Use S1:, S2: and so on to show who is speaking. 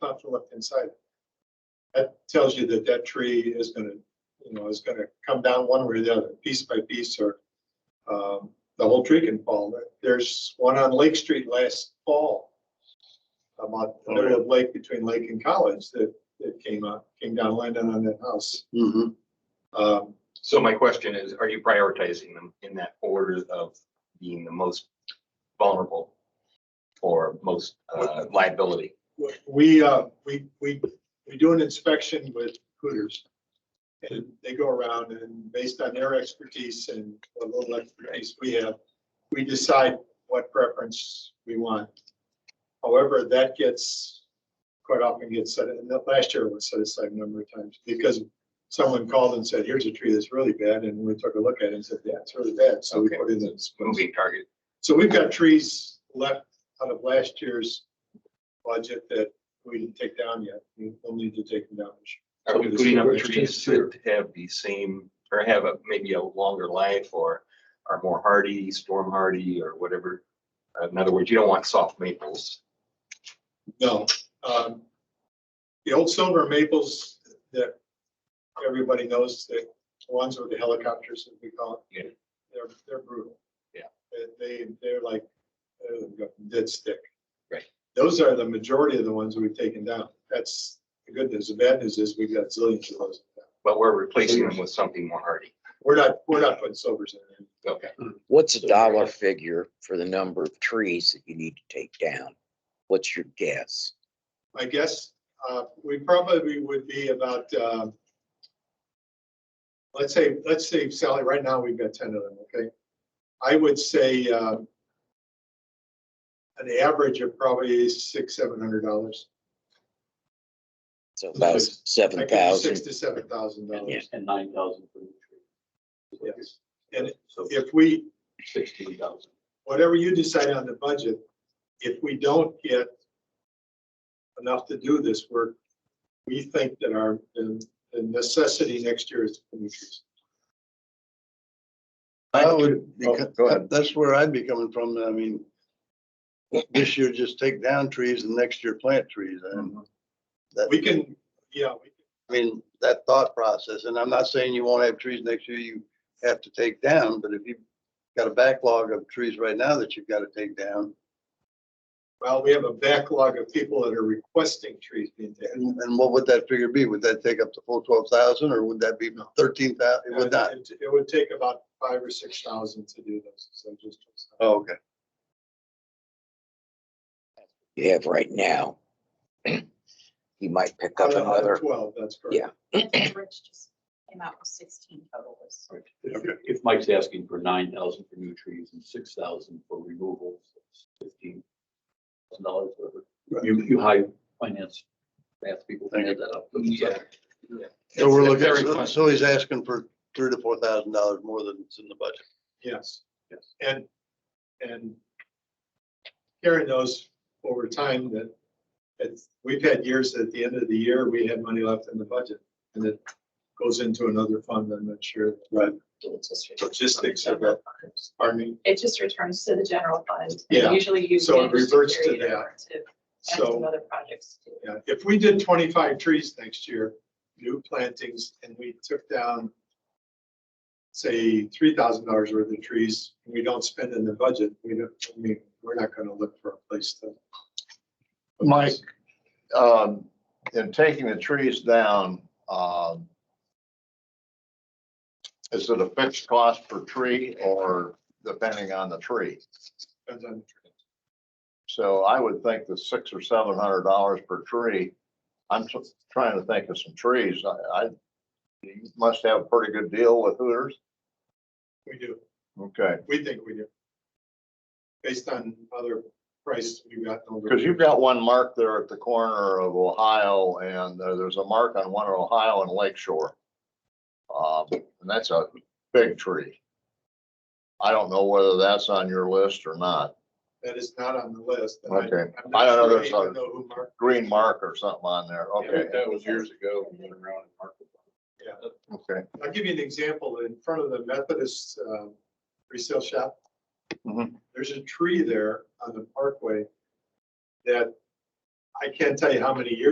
S1: top to left-hand side. That tells you that that tree is gonna, you know, is gonna come down one way or the other, piece by piece, or um, the whole tree can fall. There's one on Lake Street last fall, about the middle of Lake, between Lake and College, that, that came up, came down, landed on that house.
S2: Mhm.
S1: Um,
S3: So my question is, are you prioritizing them in that order of being the most vulnerable or most uh, liability?
S1: We, uh, we, we, we do an inspection with Hooters. And they go around and based on their expertise and a little expertise we have, we decide what preference we want. However, that gets quite often gets set, and that last year was set aside a number of times because someone called and said, here's a tree that's really bad. And we took a look at it and said, yeah, it's really bad. So we
S3: Okay.
S1: put in this.
S3: Moving target.
S1: So we've got trees left out of last year's budget that we didn't take down yet. We- We'll need to take them down. this year.
S3: Are we putting up trees that have the same, or have a, maybe a longer life or are more hardy, storm hardy or whatever? In other words, you don't want soft maples.
S1: No. um, The old silver maples that everybody knows, the ones with the helicopters that we call. it,
S3: Yeah.
S1: They're, they're brutal.
S3: Yeah.
S1: They- They, they're like, uh, dead stick.
S3: Right.
S1: Those are the majority of the ones we've taken down. That's the good news. The bad news is we've got zillions of those.
S3: But we're replacing them with something more hardy.
S1: We're not, we're not putting silvers in. there.
S3: Okay.
S2: What's a dollar figure for the number of trees that you need to take down? What's your guess?
S1: I guess, uh, we probably would be about, um, let's say, let's say Sally, right now we've got ten of them, okay? I would say, um, an average of probably six, seven hundred dollars.
S2: So about
S1: Six.
S2: seven thousand.
S1: Six to seven thousand
S2: Yeah.
S1: dollars.
S4: And nine thousand for the tree.
S1: Yes. And
S4: So
S1: if we,
S4: sixteen thousand.
S1: whatever you decide on the budget, if we don't get enough to do this work, we think that our, the the necessity next year is.
S5: I would,
S1: Oh,
S5: beca-
S1: go ahead.
S5: that- that's where I'd be coming from. I mean, this year just take down trees and next year plant trees. And
S1: We
S5: that,
S1: can, yeah, we
S5: I mean, that thought process, and I'm not saying you won't have trees next year you have to take down, but if you've got a backlog of trees right now that you've got to take down,
S1: Well, we have a backlog of people that are requesting trees being taken.
S5: and and what would that figure be? Would that take up the full twelve thousand or would that be thirteen thousand? It would not.
S1: It it would take about five or six thousand to do those. So just,
S5: Oh, okay.
S2: you have right now. You might pick
S1: out of-
S2: up
S1: out of
S2: another,
S1: twelve, that's correct.
S2: Yeah.
S6: That's what Rich just came out with sixteen total was.
S4: If if Mike's asking for nine thousand for new trees and six thousand for removals, it's fifteen thousand dollars, whatever. You, you high finance, math people can add that up.
S3: Yeah.
S5: So we're
S3: It's
S5: looking,
S3: very
S5: so-
S3: fun.
S5: so he's asking for three to four thousand dollars more than it's in the budget.
S1: Yes.
S4: Yes.
S1: And, and Karen knows over time that it's, we've had years at the end of the year, we had money left in the budget and it goes into another fund, I'm not sure. Right.
S6: It just returns to the
S1: Logistics of
S6: general
S1: that,
S6: fund.
S1: pardon me.
S6: It just returns to the general fund. and
S1: Yeah,
S6: Usually you.
S1: so it
S6: manage
S1: reverts to
S6: carry it
S1: that.
S6: over to add
S1: So.
S6: some other projects too.
S1: Yeah, if we did twenty-five trees next year, new plantings, and we took down, say, three thousand dollars worth of trees, and we don't spend in the budget, we don't, I mean, we're not gonna look for a place to.
S7: Mike, um, in taking the trees down, um, is it a fixed cost per tree or depending on the tree?
S1: Depends on the tree.
S7: So I would think the six or seven hundred dollars per tree, I'm tr- trying to think of some trees. I, I, you must have a pretty good deal with Hooters.
S1: We do,
S7: Okay,
S1: we think we do. Based on other prices we've gotten over.
S7: because you've got one mark there at the corner of Ohio and uh, there's a mark on one of Ohio and Lake Shore. Um, and that's a big tree. I don't know whether that's on your list or not.
S1: That is not on the list. and I-
S7: Okay.
S1: I'm
S7: I
S1: not
S7: don't know,
S1: sure I
S7: there's
S1: even
S7: a-
S1: know who marked.
S7: Green mark or something on there. Okay,
S4: That was years ago, went around and marked it.
S7: okay.
S1: I'll give you an example. In front of the Methodist um, resale shop,
S7: Mhm.
S1: there's a tree there on the parkway that I can't tell you how many years